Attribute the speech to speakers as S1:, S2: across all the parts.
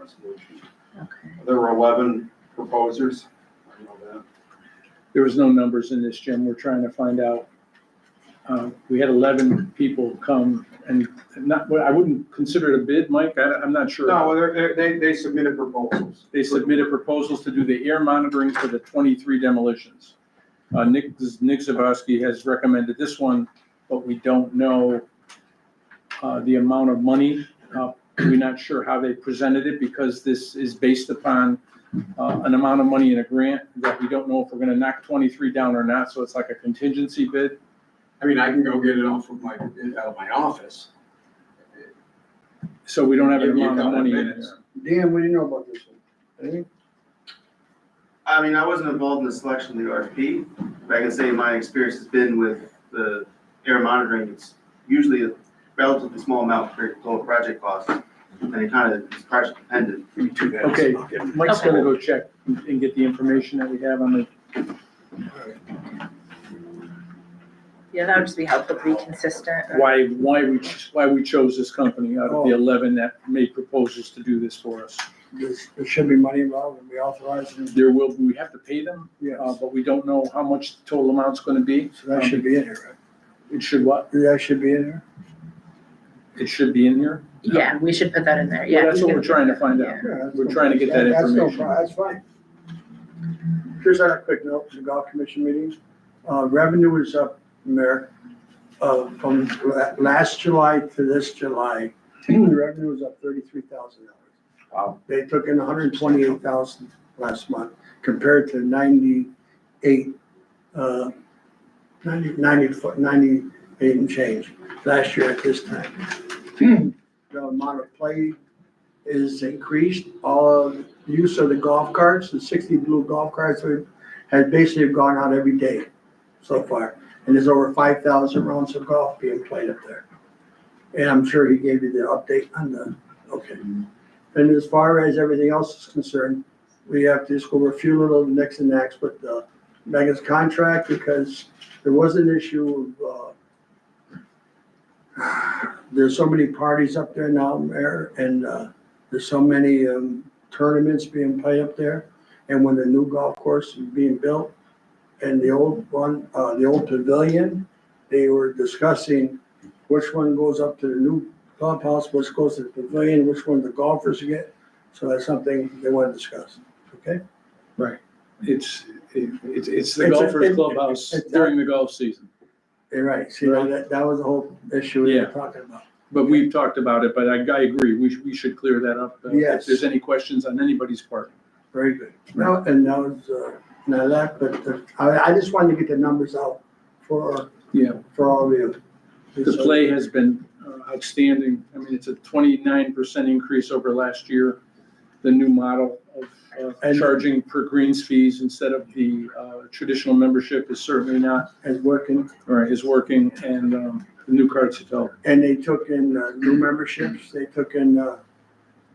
S1: resolution.
S2: Okay.
S1: There were eleven proposers. I know that.
S3: There was no numbers in this, Jim. We're trying to find out. Uh, We had 11 people come and not, well, I wouldn't consider it a bid, Mike. I, I'm not sure.
S1: No, they're- they, they submitted proposals.
S3: They submitted proposals to do the air monitoring for the 23 demolitions. Uh, Nick, Nick Zabowski has recommended this one, but we don't know uh, the amount of money. Uh, We're not sure how they presented it because this is based upon uh, an amount of money in a grant that we don't know if we're going to knock 23 down or not, so it's like a contingency bid.
S4: I mean, I can go get it off of my, out of my office.
S3: So we don't have an
S4: Give me a
S3: amount of
S4: couple
S3: money in
S4: minutes.
S3: there.
S5: Dan, what do you know about this one? Anything?
S6: I mean, I wasn't involved in the selection of the RFP, but I can say my experience has been with the air monitoring, it's usually a relatively small amount for total project cost, and it kind of is project dependent.
S4: Give me two minutes.
S3: Okay,
S4: I'll get it.
S3: Mike's going to go check and get the information that we have on the
S2: Yeah, that would just be helpful to be consistent.
S3: why, why we, ch- why we chose this company out
S5: Oh.
S3: of the 11 that made proposals to do this for us.
S5: There's, there should be money involved, and we authorize it,
S3: There will, we have to pay them, uh,
S5: yes,
S3: but we don't know how much the total amount's gonna be. Um,
S5: so that should be in here,
S3: It should what?
S5: right? That should be in here?
S3: It should be in here?
S2: Yeah, we should put that in there,
S3: Well,
S2: yeah.
S3: That's
S2: you
S3: what
S2: can-
S3: we're trying to find out.
S2: Yeah.
S5: Yeah, that's
S3: We're
S5: no-
S3: trying to get that
S5: that's no
S3: information.
S5: pro- That's fine. Here's our quick note, from the golf commission meeting, uh, revenue is up, Mayor, uh, from la- last July to this July, revenue is up thirty-three thousand dollars.
S3: Wow.
S5: They took in hundred and twenty-eight thousand last month compared to ninety-eight, uh, ninety, ninety, ninety-eight and change last year at this time. The amount of play is increased, all of the use of the golf carts, the sixty blue golf carts have- has basically gone out every day so far. And there's over five thousand rounds of golf being played up there. And I'm sure he gave you the update on the, okay. And as far as everything else is concerned, we have to just go over a few little nicks and nacks with uh, Megan's contract because there was an issue of, uh, there's so many parties up there now, Mayor, and uh, there's so many um, tournaments being played up there. And when the new golf course is being built and the old one, uh, the old pavilion, they were discussing which one goes up to the new clubhouse, which goes to the pavilion, which one the golfers get. So that's something they want to discuss, okay?
S3: It's, it- it's, it's the
S5: It's a-
S3: golfers
S5: it-
S3: clubhouse
S5: it's a-
S3: during the golf season.
S5: You're right, see, now that, that was the whole issue we
S3: Yeah.
S5: were talking about.
S3: But we've talked about it, but I, I agree, we, should- we should clear that up. uh, If
S5: Yes.
S3: there's any questions on anybody's part.
S5: Very good. Now, and that was, uh, now that, but uh, I, I just wanted to get the numbers out for,
S3: Yeah.
S5: for all of you.
S3: The play has been uh, outstanding. I mean, it's a 29% increase over last year. The new model of uh,
S5: And-
S3: charging per greens fees instead of the uh, traditional membership is certainly not,
S5: And working,
S3: or is working, and um, the new cards have helped.
S5: and they took in uh, new memberships, they took in, uh,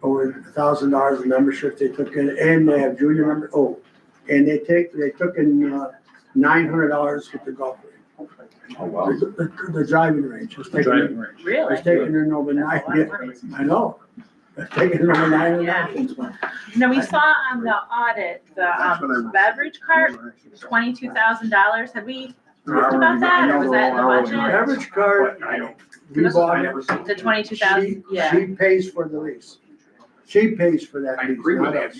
S5: over a thousand dollars in membership, they took in, and they have junior member, oh, and they take, they took in, uh, nine hundred dollars with the golf. range.
S3: Oh,
S5: The, the- the driving range, it's
S3: The
S5: taking,
S3: driving range.
S2: Really?
S5: it's taking in over nine,
S2: That's a lot of
S5: yeah,
S2: money.
S5: I know, it's taking in over nine hundred
S2: Yeah.
S5: dollars.
S7: No, we saw on the audit, the
S6: That's what I
S7: um,
S6: want.
S7: beverage cart, twenty-two thousand dollars, had we talked about that, or was that in
S1: Hourly,
S7: the
S1: hourly,
S7: budget?
S5: Average card,
S1: But I don't,
S5: we
S1: I
S5: bought it.
S1: never saw.
S7: The twenty-two
S5: She-
S7: thousand, yeah,
S5: She pays for the lease. She pays for that
S4: I
S5: lease,
S4: agree with
S5: not
S4: that.
S5: us.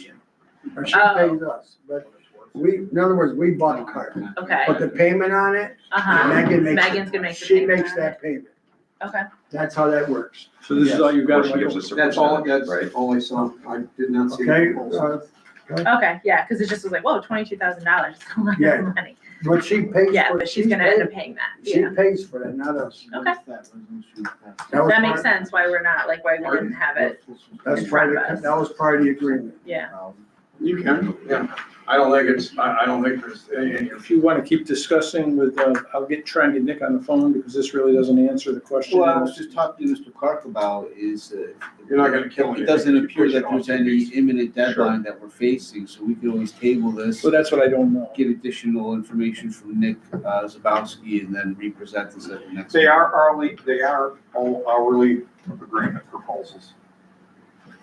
S5: Or she
S7: Oh.
S5: pays us, but we, in other words, we bought the cart.
S7: okay,
S5: But the payment on it,
S7: uh-huh,
S5: Megan makes.
S7: Megan's gonna make the
S5: She
S7: payment
S5: makes
S7: on
S5: that payment.
S7: okay.
S5: That's how that works,
S3: So this is all you got?
S1: Yes.
S3: Michael?
S4: That's all, that's all I saw. I did not see. the
S5: okay?
S4: proposal.
S5: So,
S7: Okay, yeah, because it just was like, whoa, twenty-two thousand dollars, a lot
S5: Yeah.
S7: of money.
S5: But she pays for.
S7: Yeah, but she's
S5: she
S7: gonna end
S5: pays-
S7: up paying that,
S5: She
S7: yeah.
S5: pays for that, not us.
S7: Okay.
S5: was
S7: That makes
S5: part-
S7: sense why we're not, like, why we didn't have it,
S5: That's
S7: in
S5: part
S7: front of
S5: of,
S7: us.
S5: that was part of the agreement.
S7: yeah.
S4: You can, yeah. I don't think it's, I, I don't think there's any, any-
S3: If you want to keep discussing with, uh, I'll get, try and get Nick on the phone because this really doesn't answer the question.
S8: Well, I was just talking to Mr. Clark about is, uh,
S4: you're not gonna kill anything.
S8: it doesn't
S4: if you
S8: appear
S4: push it
S8: that
S4: off
S8: there's
S4: two
S8: any
S4: weeks.
S8: imminent deadline that we're facing, so we can always table this,
S3: So that's what I don't know.
S8: get additional information from Nick uh, Zabowski, and then represent this at the next.
S1: They are hourly, they are all hourly agreement proposals.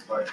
S1: But